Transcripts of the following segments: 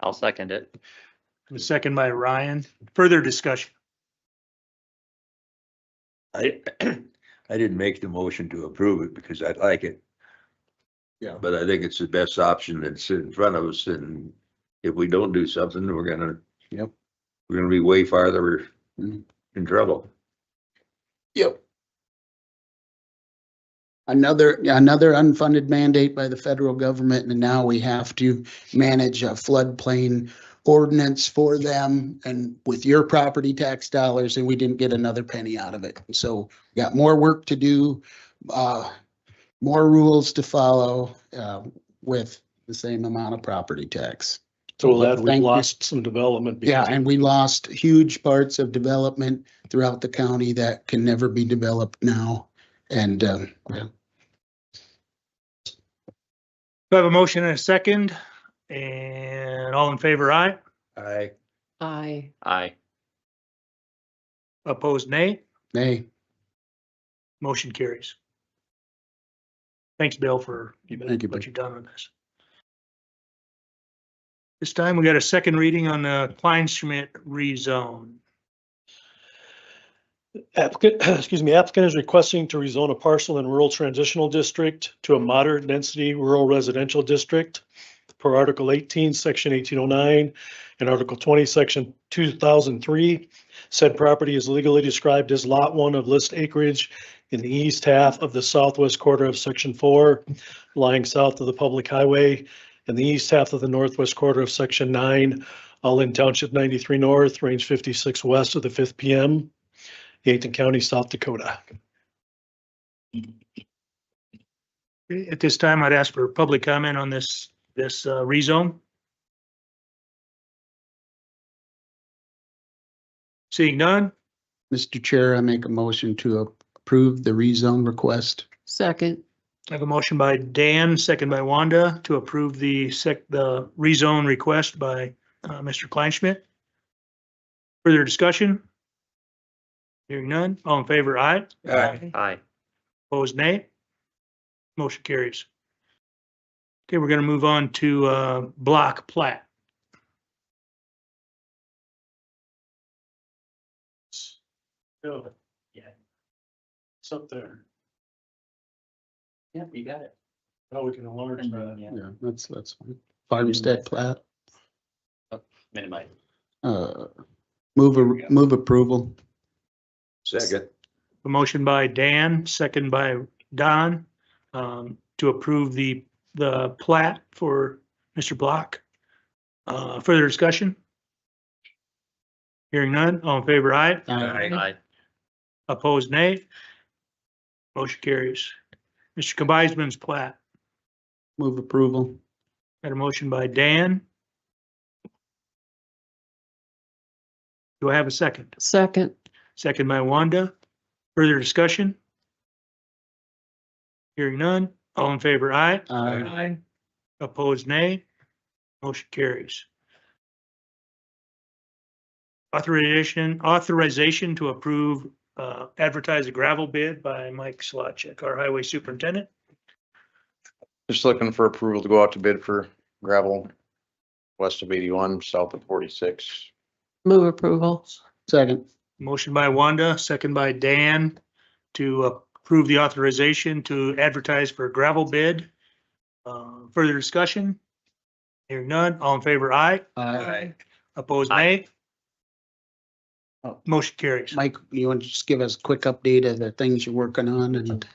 I'll second it. A second by Ryan. Further discussion. I, I didn't make the motion to approve it because I'd like it. Yeah. But I think it's the best option that's in front of us and if we don't do something, we're gonna. Yep. Mm-hmm. We're gonna be way farther in trouble. Yep. Another, another unfunded mandate by the federal government, and now we have to manage a floodplain ordinance for them and with your property tax dollars, and we didn't get another penny out of it. So we got more work to do, uh, more rules to follow, uh, with the same amount of property tax. So that we Thank you. lost some development. Yeah, because and we lost huge parts of development throughout the county that can never be developed now. And, um, well, We have a motion and a second, and all in favor, aye. I, Aye. Aye. Opposed, nay. hey, Motion carries. Thanks, Bill, for you bet. thank you. what Butch. you've done on this. This time, we got a second reading on the Kleinschmidt rezone. Applicant, excuse me, applicant is requesting to rezone a parcel in rural transitional district to a moderate density rural residential district per Article eighteen, Section eighteen oh nine, and Article twenty, Section two thousand three. Said property is legally described as Lot One of list acreage in the east half of the southwest quarter of Section Four, lying south of the public highway, and the east half of the northwest quarter of Section Nine, all in Township ninety-three north, Range fifty-six west of the fifth PM. Yankton County, South Dakota. At this time, I'd ask for public comment on this, this uh, rezone. Seeing none, Mr. Chair, I make a motion to approve the rezone request. Second. I have a motion by Dan, second by Wanda, to approve the sec, the rezone request by uh, Mr. Kleinschmidt. Further discussion? Hearing none, all in favor, aye. Aye. Aye. Opposed, nay. Motion carries. Okay, we're gonna move on to uh, block plat. Yeah. It's up there. Yep, you got it. Now we can enlarge that. Yeah, that's, that's fine. farmstead plat. Minimize. Uh, move, a- move approval. second, A motion by Dan, second by Don, um, to approve the, the plat for Mr. Block. Uh, further discussion? Hearing none, all in favor, aye. Uh, Aye. Opposed, nay. Motion carries. Mr. Kabizman's plat, Move approval. had a motion by Dan. Do I have a second? Second. Second by Wanda. Further discussion? Hearing none. All in favor, aye. Uh, Aye. Opposed, nay. Motion carries. Authorization, authorization to approve, uh, advertise a gravel bid by Mike Slotchek, our highway superintendent. Just looking for approval to go out to bid for gravel west of eighty-one, south of forty-six. Move approval. second, Motion by Wanda, second by Dan to approve the authorization to advertise for a gravel bid. Uh, further discussion? Hearing none. All in favor, aye. uh, Opposed, nay. Oh. Motion carries. Mike, you want to just give us a quick update of the things you're working on and,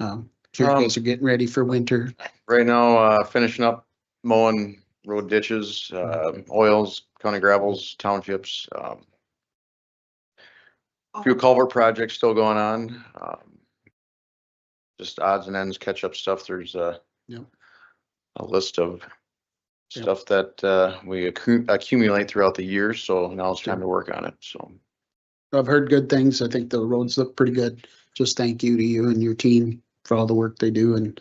um, sure you guys are getting ready for winter. Right now, uh, finishing up mowing road ditches, uh, oils, county gravels, townships, um. Few culvert projects still going on, um. Just odds and ends, catch up stuff. There's a. Yep. A list of Yep. stuff that, uh, we accu- accumulate throughout the year, so now it's time to work on it, so. I've heard good things. I think the roads look pretty good. Just thank you to you and your team for all the work they do and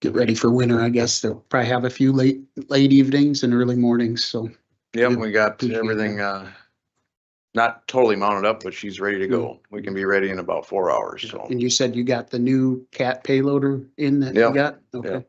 get ready for winter, I guess. They'll probably have a few late, late evenings and early mornings, so. Yep, Yep, we got appreciate everything, uh, not totally mounted up, but she's ready to go. We can be ready in about four hours, so. And you said you got the new cat payloader in that you Yeah, got? Okay.